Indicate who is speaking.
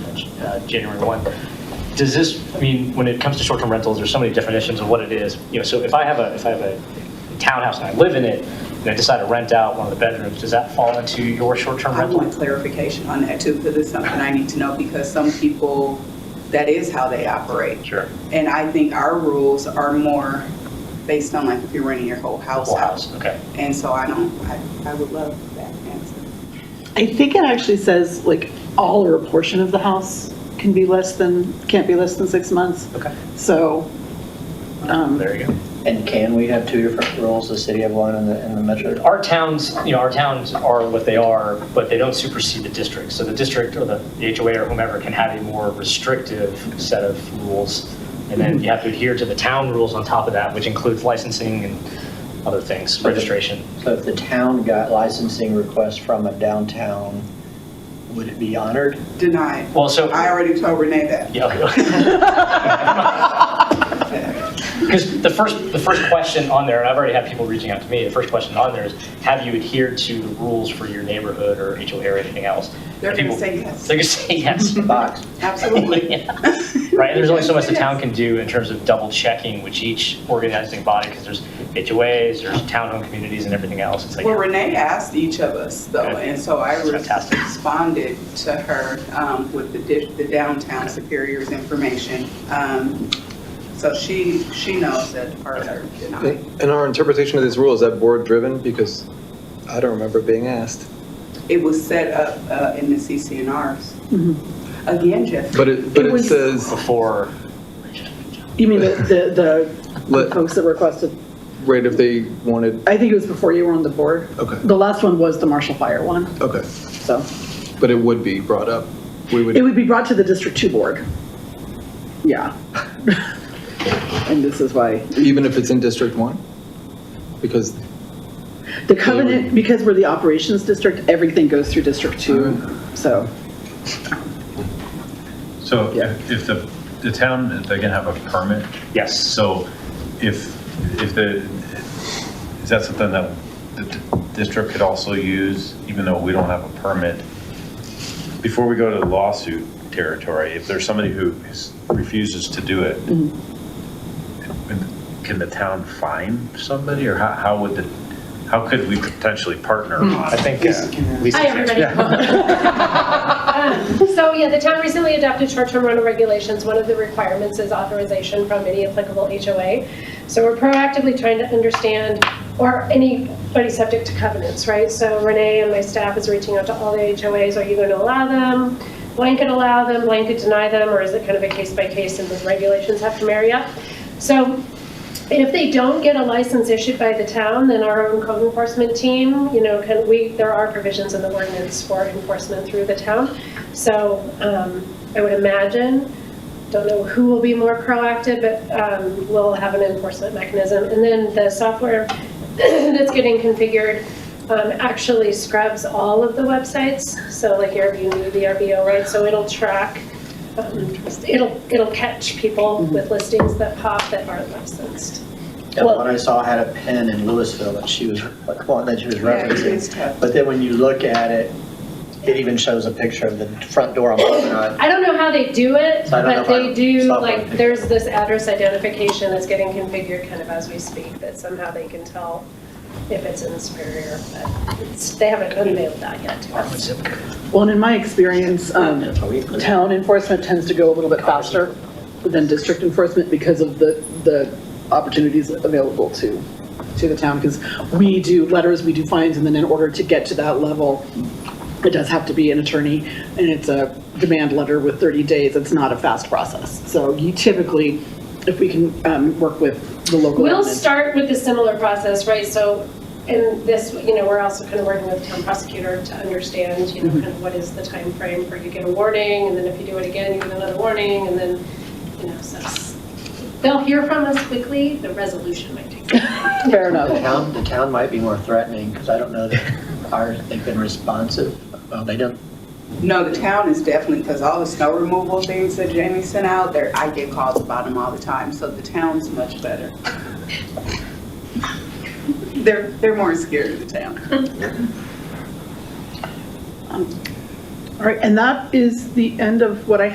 Speaker 1: uh, January 1. Does this, I mean, when it comes to short-term rentals, there's so many definitions of what it is. You know, so if I have a, if I have a townhouse and I live in it, and I decide to rent out one of the bedrooms, does that fall into your short-term
Speaker 2: I
Speaker 1: rental?
Speaker 2: want clarification on that too, because it's something I need to know, because some people, that is how they operate.
Speaker 1: Sure.
Speaker 2: And I think our rules are more based on like if you're renting your whole house
Speaker 1: Whole
Speaker 2: out.
Speaker 1: house, okay.
Speaker 2: And so I don't, I, I would love that answer.
Speaker 3: I think it actually says like all or a portion of the house can be less than, can't be less than six months.
Speaker 1: Okay.
Speaker 3: So, um,
Speaker 1: There you go.
Speaker 4: And can we have two different rules, the city of one and the, and the metro?
Speaker 1: Our towns, you know, our towns are what they are, but they don't supersede the district. So the district or the the HOA or whomever can have a more restrictive set of rules. And then you have to adhere to the town rules on top of that, which includes licensing and other things, registration.
Speaker 4: So if the town got licensing requests from a downtown, would it be honored?
Speaker 2: Denied.
Speaker 1: Well, so.
Speaker 2: I already told Renee that.
Speaker 1: Because the first, the first question on there, and I've already had people reaching out to me, the first question on there is, have you adhered to the rules for your neighborhood or HOA or anything else?
Speaker 2: They're gonna
Speaker 1: People-
Speaker 2: say yes.
Speaker 1: They're going to say yes.
Speaker 4: Box.
Speaker 2: Absolutely.
Speaker 1: Yeah. Right, there's only so much the town
Speaker 2: Yes.
Speaker 1: can do in terms of double checking which each organizing body, because there's HOAs, there's townhome communities and everything else. It's like,
Speaker 2: Well, Renee asked each of us though,
Speaker 1: Okay.
Speaker 2: and so I
Speaker 1: That's fantastic.
Speaker 2: responded to her um, with the di- the downtown superior's information. Um, So she, she knows that ours are denied.
Speaker 5: And our interpretation of this rule, is that board-driven? Because I don't remember it being asked.
Speaker 2: It was set up uh, in the CCNRs. Again, Jeff.
Speaker 5: But it, but
Speaker 3: It
Speaker 5: it
Speaker 3: was-
Speaker 5: says,
Speaker 1: before,
Speaker 3: you mean the- the, the
Speaker 5: Let-
Speaker 3: folks that requested,
Speaker 5: right, if they wanted,
Speaker 3: I think it was before you were on the board.
Speaker 5: Okay.
Speaker 3: The last one was the Marshall Fire one,
Speaker 5: okay,
Speaker 3: so.
Speaker 5: but it would be brought up. We
Speaker 3: It
Speaker 5: would,
Speaker 3: would be brought to the District Two Board. Yeah. And this is why,
Speaker 5: even if it's in District 1? Because,
Speaker 3: the covenant, because we're the operations district, everything goes through District Two, so.
Speaker 6: So
Speaker 3: Yeah.
Speaker 6: if if the, the town, they can have a permit,
Speaker 1: yes.
Speaker 6: so if, if the, is that something that the d- district could also use, even though we don't have a permit? Before we go to lawsuit territory, if there's somebody who is- refuses to do it, can the town fine somebody, or how, how would the, how could we potentially partner on
Speaker 1: I
Speaker 6: it?
Speaker 1: think. uh, Lisa
Speaker 7: Hi,
Speaker 1: can
Speaker 7: everybody. Um, So, yeah, the town recently adopted short-term rental regulations. One of the requirements is authorization from any applicable HOA. So we're proactively trying to understand, or anybody subject to covenants, right? So Renee and my staff is reaching out to all the HOAs. Are you going to allow them? Blanket allow them, blanket deny them, or is it kind of a case-by-case and those regulations have to marry up? So and if they don't get a license issued by the town, then our own code enforcement team, you know, can, we, there are provisions in the ordinance for enforcement through the town. So um, I would imagine, don't know who will be more proactive, but um, we'll have an enforcement mechanism. And then the software that's getting configured um, actually scrubs all of the websites. So like Airbnb, VRBO, right? So it'll track um, It'll, it'll catch people with listings that pop that aren't licensed.
Speaker 4: Yeah, the one I saw had a pen in Louisville that she was, like, well, that she was
Speaker 2: Yeah, it is
Speaker 4: referencing.
Speaker 2: tough.
Speaker 4: But then when you look at it, it even shows a picture of the front door on Promenade.
Speaker 7: I don't know how they do it,
Speaker 4: So I don't know
Speaker 7: but
Speaker 4: if
Speaker 7: they
Speaker 4: I-
Speaker 7: do,
Speaker 4: software
Speaker 7: like,
Speaker 4: picture.
Speaker 7: there's this address identification that's getting configured kind of as we speak, that somehow they can tell if it's in Superior, but it's, they haven't unveiled that yet to us.
Speaker 3: Well, and in my experience, um, town enforcement tends to go a little bit faster than district enforcement because of the, the opportunities available to, to the town. Because we do letters, we do fines, and then in order to get to that level, it does have to be an attorney, and it's a demand letter with 30 days. It's not a fast process. So you typically, if we can um, work with the local.
Speaker 7: We'll
Speaker 3: admin-
Speaker 7: start with a similar process, right? So in this, you know, we're also kind of working with town prosecutor to understand, you know, kind of what is the time frame for you get a warning, and then if you do it again, you get another warning, and then, you know, so s- they'll hear from us quickly, the resolution might take. some time.
Speaker 3: Fair
Speaker 4: The
Speaker 3: enough.
Speaker 4: town, the town might be more threatening, because I don't know that ours, they've been responsive. Well, they don't,
Speaker 2: No, the town is definitely, because all the snow removal things that Jamie sent out, there, I get calls about them all the time, so the town's much better. They're, they're more scared of the town.
Speaker 3: All right, and that is the end of what I